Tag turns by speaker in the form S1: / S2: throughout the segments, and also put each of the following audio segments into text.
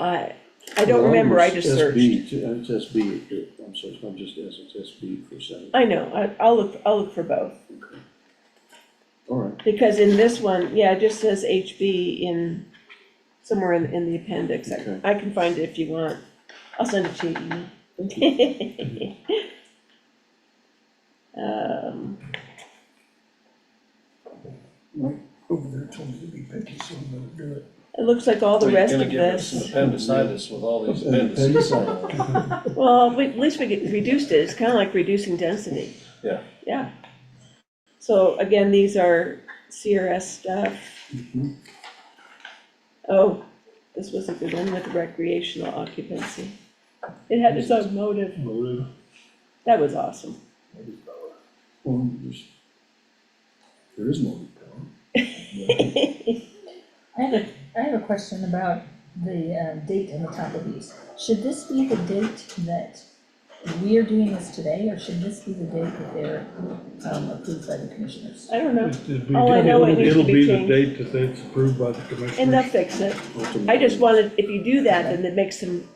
S1: I, I don't remember, I just searched.
S2: SB, it's SB, uh, I'm sorry, it's not just S, it's SB for seven,
S1: I know, I, I'll look, I'll look for both,
S2: all right,
S1: because in this one, yeah, it just says HB in, somewhere in, in the appendix. I-
S2: Okay.
S1: I can find it if you want, I'll send it to you. you know. Um,
S3: Mike over there told me to be picky, so I'm gonna do it.
S1: it looks like all the
S4: Well, you're
S1: rest
S4: gonna
S1: of
S4: give us some
S1: this,
S4: Appendicitis with all these appendices.
S2: appendicitis,
S1: well, we- at least we get- reduced it, it's kinda like reducing density.
S4: Yeah.
S1: Yeah. So again, these are CRS stuff.
S3: Mm-hmm.
S2: Mhm.
S1: Oh, this was a good one with recreational occupancy. It had its own motive.
S3: Motive.
S1: That was awesome.
S2: well, there's, there is no
S5: I have a, I have a question about the uh, date on the top of these. Should this be the date that we're doing this today, or should this be the date that they're um, approved by the commissioners?
S1: I don't know,
S3: It- it'd be-
S1: All I know, it needs to
S3: It'll
S1: be
S3: be the
S1: changed.
S3: date that it's approved by the commissioners.
S1: and they'll fix it. I just wanted, if you do that, then it makes them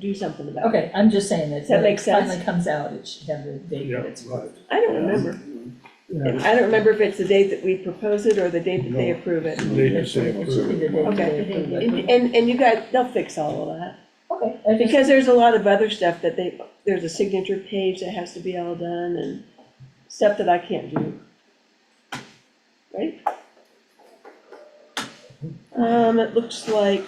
S1: do something about it.
S5: Okay, I'm just saying that
S1: Does that
S5: when
S1: make
S5: it
S1: sense?
S5: finally comes out, it should have the date
S3: Yeah,
S5: that it's
S3: right.
S5: approved.
S1: I don't remember.
S3: Yeah.
S1: I don't remember if it's the date that we propose it or the date that they
S3: No.
S1: approve it.
S3: They just say
S5: Should be the date that they approve it.
S1: And, and- and you guys, they'll fix all of that.
S5: Okay, I just,
S1: Because there's a lot of other stuff that they, there's a signature page that has to be all done and stuff that I can't do. Right? Um, it looks like.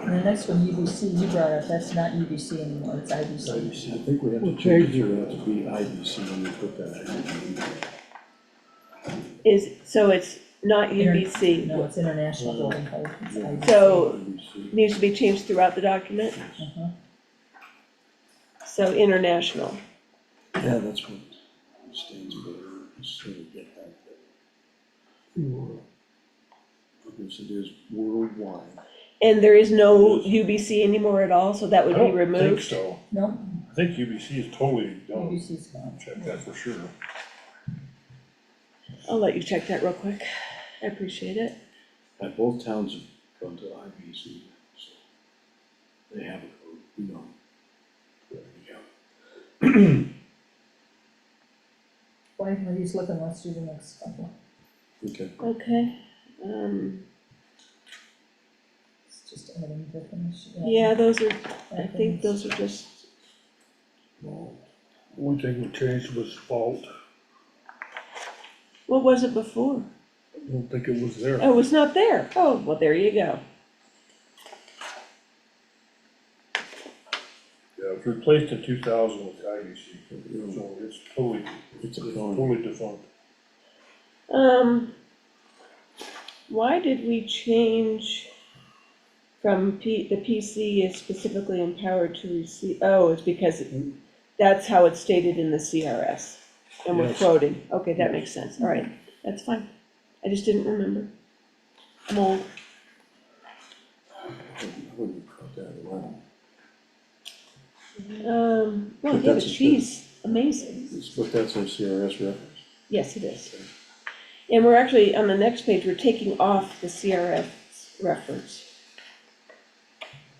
S5: and the next one, UBC, you brought up, that's not UBC anymore, it's IBC.
S2: IBC, I think we have to change it, we have to be IBC when we put that
S1: Is, so it's not
S5: Inter-
S1: UBC,
S5: No, it's International Building Code, it's IBC.
S1: so
S2: in. IBC.
S1: needs to be changed throughout the document,
S5: Uh-huh.
S1: so international.
S2: Yeah, that's what stands for, so we get that, because it is worldwide.
S1: And there is no UBC anymore at all, so that would
S6: I
S1: be
S6: don't think
S1: removed.
S6: so.
S5: No,
S6: I think UBC is totally done.
S5: UBC's gone.
S6: Check that for sure.
S1: I'll let you check that real quick, I appreciate it.
S2: And both towns have gone to IBC, so they have a code, we know. There you go.
S5: Why are you looking, let's do the next couple.
S2: Okay,
S1: Okay, um,
S5: It's just adding definition.
S1: yeah, those are, I think those are just,
S3: Well, One thing we changed was fault,
S1: what was it before?
S3: I don't think it was there.
S1: Oh, it's not there. Oh, well, there you go.
S6: Yeah, it was replaced in two thousand with IBC, so it's totally,
S2: it's a
S6: it's
S2: code.
S6: totally defunct.
S1: Um, why did we change from P, the PC is specifically empowered to receive, oh, it's because it- that's how it's stated in the CRS. And we're
S3: Yes.
S1: quoting, okay, that makes sense, all right, that's fine. I just didn't remember. I'm old.
S2: I wouldn't have caught that at all.
S1: Um, well,
S2: But
S1: yeah, but
S2: that's a-
S1: she's amazing.
S2: It's- But that's our CRS reference.
S1: Yes, it is. And we're actually, on the next page, we're taking off the CRF reference.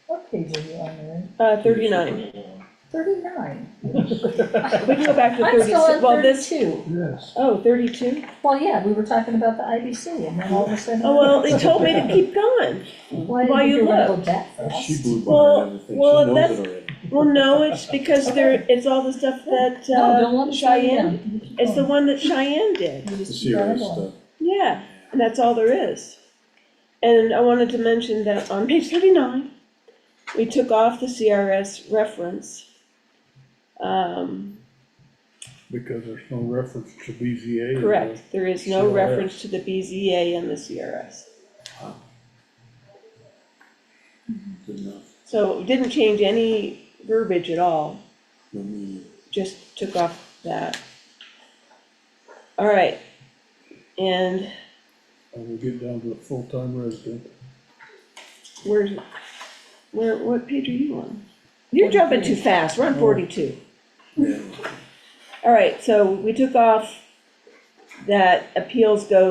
S5: What page are you on there?
S1: Uh, thirty-nine.
S5: Thirty-nine.
S1: We can go back to
S5: I'm
S1: thirty-six.
S5: still on
S1: Well, this,
S5: thirty-two.
S3: Yes.
S1: oh, thirty-two?
S5: Well, yeah, we were talking about the IBC and then all of a sudden.
S1: Oh, well, they told me to keep going.
S5: Why
S1: while
S5: did
S1: you
S5: you wanna go
S1: looked.
S5: that
S2: Uh,
S5: fast?
S2: She blew
S1: Well-
S2: by everything, she
S1: well,
S2: knows
S1: that's-
S2: it already.
S1: Well, no, it's because there, it's all the stuff that
S5: No, don't
S1: uh,
S5: let it slow you
S1: Cheyenne,
S5: down. You keep
S1: it's the
S5: going.
S1: one that Cheyenne did.
S5: You
S2: The
S5: just keep
S2: CRS
S5: going along.
S2: stuff,
S1: Yeah, and that's all there is. And I wanted to mention that on page thirty-nine, we took off the CRS reference. Um,
S3: Because there's no reference to BZA. in there.
S1: correct, there is no
S3: CRS.
S1: reference to the BZA and the CRS.
S2: good enough,
S1: So it didn't change any verbiage at all.
S2: no meaning.
S1: just took off that. All right, and
S3: And we get down to the full-time resident.
S1: where, where, what page are you on? You're jumping too fast, we're on forty-two.
S2: Yeah.
S1: All right, so we took off that appeals go